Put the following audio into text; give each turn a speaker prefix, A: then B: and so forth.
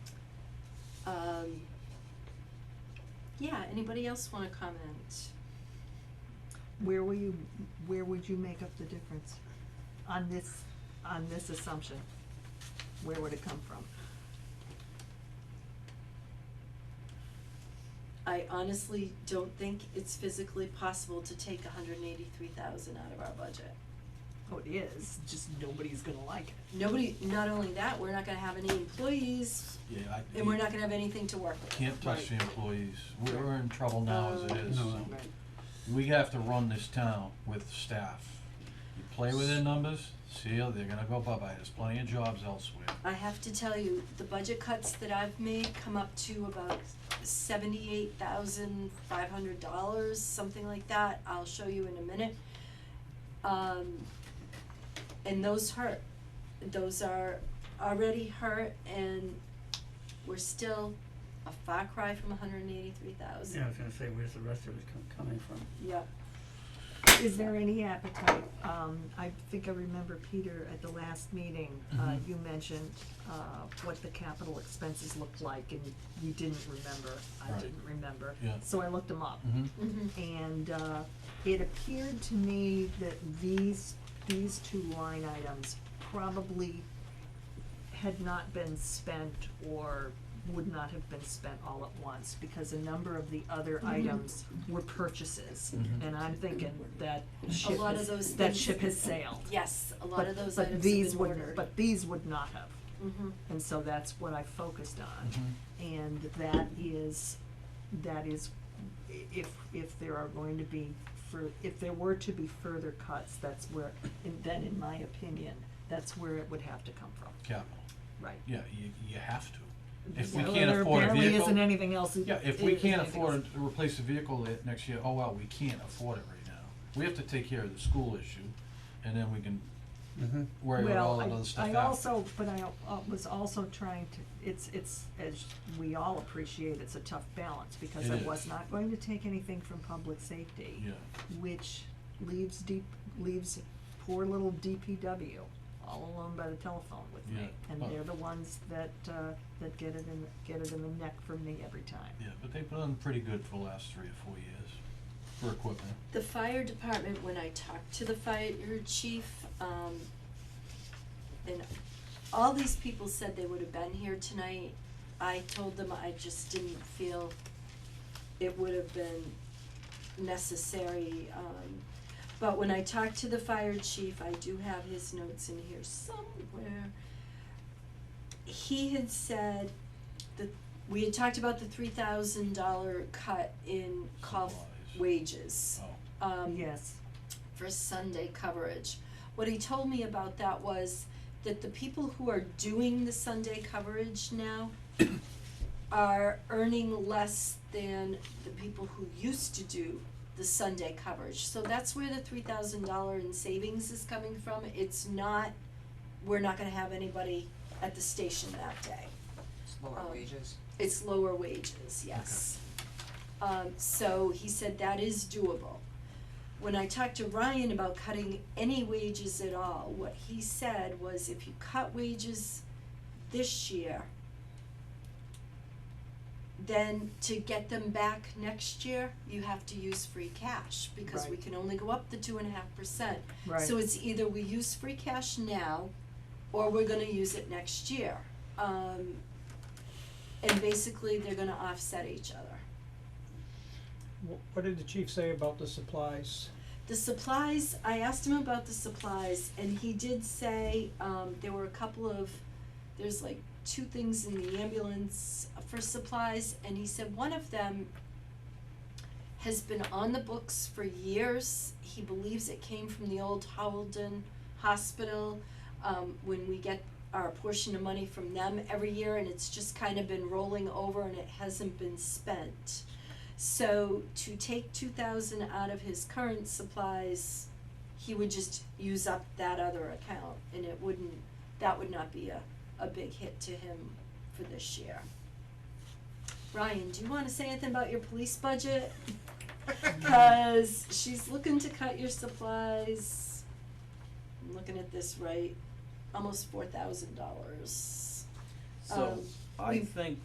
A: Um, yeah, anybody else wanna comment?
B: Where will you, where would you make up the difference on this, on this assumption? Where would it come from?
A: I honestly don't think it's physically possible to take hundred and eighty-three thousand out of our budget.
B: Oh, it is, just nobody's gonna like it.
A: Nobody, not only that, we're not gonna have any employees,
C: Yeah, I.
A: and we're not gonna have anything to work with.
C: Can't touch the employees, we're, we're in trouble now as it is,
D: No.
C: so, we have to run this town with staff. You play with their numbers, see, ya, they're gonna go bye-bye, there's plenty of jobs elsewhere.
A: I have to tell you, the budget cuts that I've made come up to about seventy-eight thousand five hundred dollars, something like that, I'll show you in a minute. Um, and those hurt, those are already hurt and we're still a far cry from hundred and eighty-three thousand.
D: Yeah, I was gonna say, where's the rest of it com- coming from?
A: Yep,
B: Is there any appetite, um, I think I remember Peter at the last meeting, uh,
C: Mhm.
B: you mentioned, uh, what the capital expenses looked like and you didn't remember, I
C: Right.
B: didn't remember.
C: Yeah.
B: So I looked them up.
C: Mm-hmm,
A: mhm.
B: And uh, it appeared to me that these, these two line items probably had not been spent or would not have been spent all at once, because a number of the
A: Mm-hmm.
B: other items were purchases.
C: Mhm.
B: And I'm thinking that ship
A: lot of
B: has,
A: those
B: that
A: things-
B: ship has sailed.
A: Yes, a lot of
B: But-
A: those
B: but
A: items have
B: these
A: been
B: would-
A: ordered.
B: But these would not have,
A: Mhm.
B: and so that's what I focused on
D: Mm-hmm.
C: mhm.
B: and that is, that is, i- if, if there are going to be fur, if there were to be further cuts, that's where, and then in my opinion, that's where it would have to come from,
C: Capital,
B: right?
C: yeah, you, you have to. If we
B: So
C: can't afford a
B: There barely isn't
C: vehicle,
B: anything else.
C: yeah, if
B: i-
C: we can't
B: anything
C: afford
B: else.
C: to replace a vehicle it- next year, oh well, we can't afford it right now. We have to take care of the school issue, and then we can
D: Mm-hmm.
C: worry about all that other stuff
B: Well,
C: after.
B: I, I also, but I uh, was also trying to, it's, it's, as we all appreciate, it's a tough balance, because
C: It
B: I
C: is.
B: was not going to take anything from public safety.
C: Yeah,
B: which leaves deep, leaves poor little DPW all alone by the telephone with me.
C: Yeah.
B: And
C: Oh.
B: they're the ones that, uh, that get it in, get it in the neck from me every time.
C: yeah, but they've done pretty good for the last three or four years for equipment.
A: The fire department, when I talked to the fire chief, um, and all these people said they would have been here tonight. I told them I just didn't feel it would have been necessary, um, but when I talked to the fire chief, I do have his notes in here somewhere. He had said that, we had talked about the three thousand dollar cut in call
C: Supplies.
A: wages
C: Oh,
A: um,
B: Uh, Yes,
A: for Sunday coverage. What he told me about that was that the people who are doing the Sunday coverage now are earning less than the people who used to do the Sunday coverage. So that's where the three thousand dollar in savings is coming from. It's not, we're not gonna have anybody at the station that day.
E: It's lower
A: Um,
E: wages.
A: It's lower wages, yes. Um, so he said that is doable. When I talked to Ryan about cutting any wages at all, what he said was if you cut wages this year, then to get them back next year, you have to use free cash because we
B: Right.
A: can only go up the two and a half percent.
B: right.
A: So it's either we use free cash now, or we're gonna use it next year. Um, and basically, they're gonna offset each other.
F: Wh- What did the chief say about the supplies?
A: The supplies, I asked him about the supplies, and he did say, um, there were a couple of, there's like two things in the ambulance for supplies, and he said one of them has been on the books for years. He believes it came from the old Howelden Hospital, um, when we get our portion of money from them every year, and it's just kind of been rolling over and it hasn't been spent. So to take two thousand out of his current supplies, he would just use up that other account and it wouldn't, that would not be a, a big hit to him for this year. Ryan, do you wanna say anything about your police budget? Cause she's looking to cut your supplies, I'm looking at this right, almost four thousand dollars.
G: So
A: Um,
G: I
A: we've-
G: think